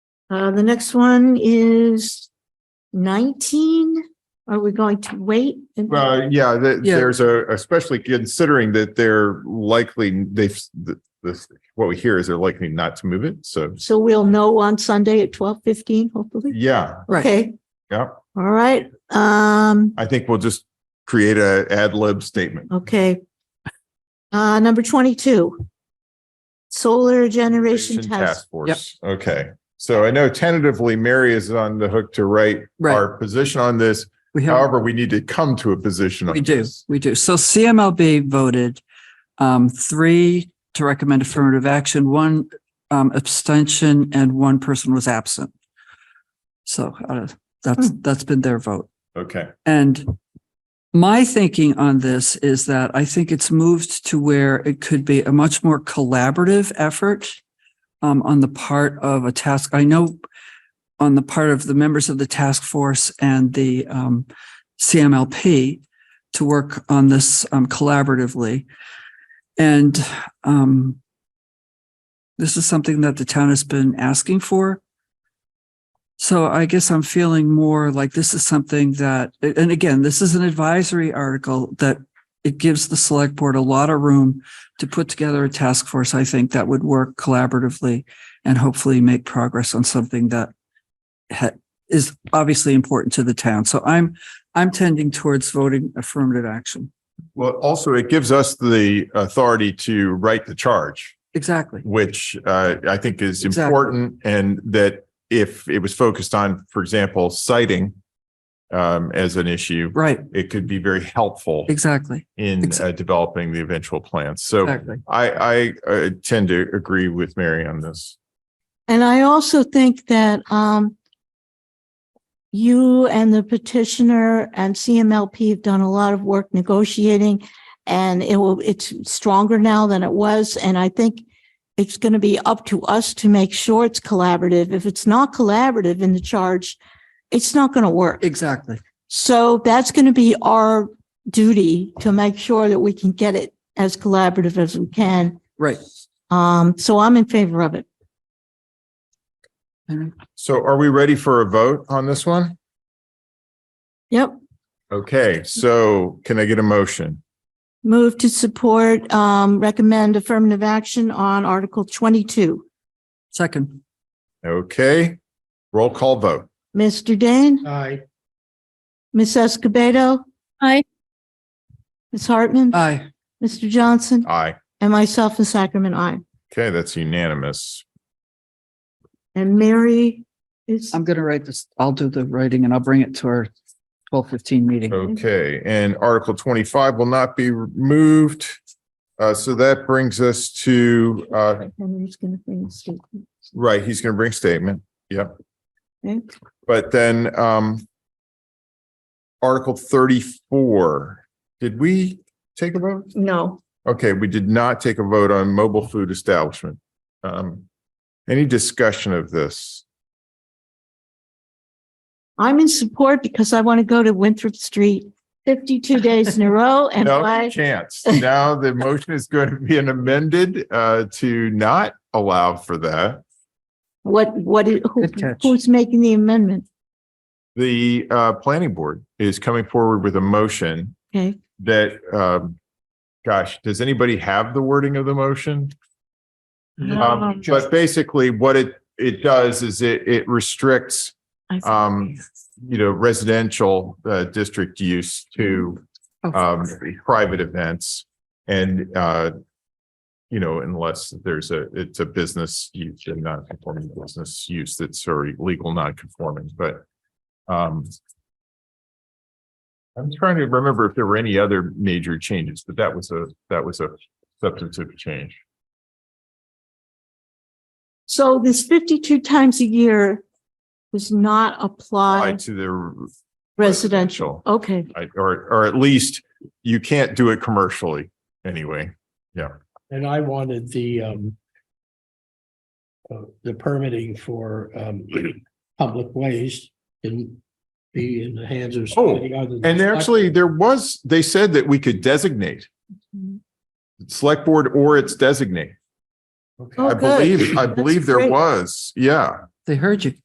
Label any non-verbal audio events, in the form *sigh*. Uh, the next one is nineteen. Are we going to wait? and- Well, yeah, th- Yeah. there's a, especially considering that they're likely, they've, th- this, what we hear is they're likely not to move it. So, So we'll know on Sunday at twelve fifteen, hopefully. yeah, Right. Okay, yeah. all right, um, I think we'll just create a ad lib statement. okay. Uh, number twenty-two. Solar Generation Task. Force. Okay. So I know tentatively Mary is on the hook to write Right. our position on this. We have, However, we need to come to a position. on we do, this. we do. So CMLB voted um, three to recommend affirmative action, one um, abstention, and one person was absent. So uh, that's, that's been their vote. Okay. And my thinking on this is that I think it's moved to where it could be a much more collaborative effort um, on the part of a task. I know on the part of the members of the task force and the um, CMLP to work on this um, collaboratively. And um, this is something that the town has been asking for. So I guess I'm feeling more like this is something that, and again, this is an advisory article that it gives the select board a lot of room to put together a task force, I think, that would work collaboratively and hopefully make progress on something that ha- is obviously important to the town. So I'm, I'm tending towards voting affirmative action. Well, also it gives us the authority to write the charge. Exactly. which uh, I think is Exactly. important and that if it was focused on, for example, citing um, as an issue, Right. it could be very helpful Exactly. in Exa- uh, developing the eventual plans. So Exactly. I, I uh, tend to agree with Mary on this. And I also think that, um, you and the petitioner and CMLP have done a lot of work negotiating and it will, it's stronger now than it was. And I think it's going to be up to us to make sure it's collaborative. If it's not collaborative in the charge, it's not going to work. Exactly. So that's going to be our duty to make sure that we can get it as collaborative as we can. Right. Um, so I'm in favor of it. So are we ready for a vote on this one? Yep. Okay, so can I get a motion? Move to support, um, recommend affirmative action on Article twenty-two. Second. Okay, roll call vote. Mr. Dane? Aye. Ms. Escobedo? Aye. Ms. Hartman? Aye. Mr. Johnson? Aye. And myself in Sacramento, aye. Okay, that's unanimous. And Mary is, I'm going to write this. I'll do the writing and I'll bring it to our twelve fifteen meeting. Okay, and Article twenty-five will not be removed. Uh, so that brings us to, uh, Henry's gonna bring a statement. right, he's gonna bring statement, Okay. but then, um, Article thirty-four, did we take a vote? No, Okay, we did not take a vote on mobile food establishment. Um, any discussion of this? I'm in support because I want to go to Winthrop Street fifty-two days in a row and No why? chance. Now the motion is going to be an amended, uh, to not allow for that. What, what, is- who- Good catch. who's making the amendment? The uh planning board is coming forward with a motion Okay, that um. Gosh, does anybody have the wording of the motion? Um, but basically what it it does is it it restricts, I see. um, you know, residential uh district use to Oh, um private events and uh. You know, unless there's a, it's a business use and non-conforming business use that's already legal non-conforming, but um. I'm trying to remember if there were any other major changes, but that was a, that was a substantive change. So this fifty-two times a year does not Applied apply to the residential. Okay, I- or, or at least you can't do it commercially anyway. And I wanted the um. uh, The permitting for um public ways can be in the hands of. somebody other than- Oh, And there actually, there was, they said that we could designate select board or its designate. Okay. Oh, I good. believe, *laughs* I That's believe there great. was. Yeah. They heard you.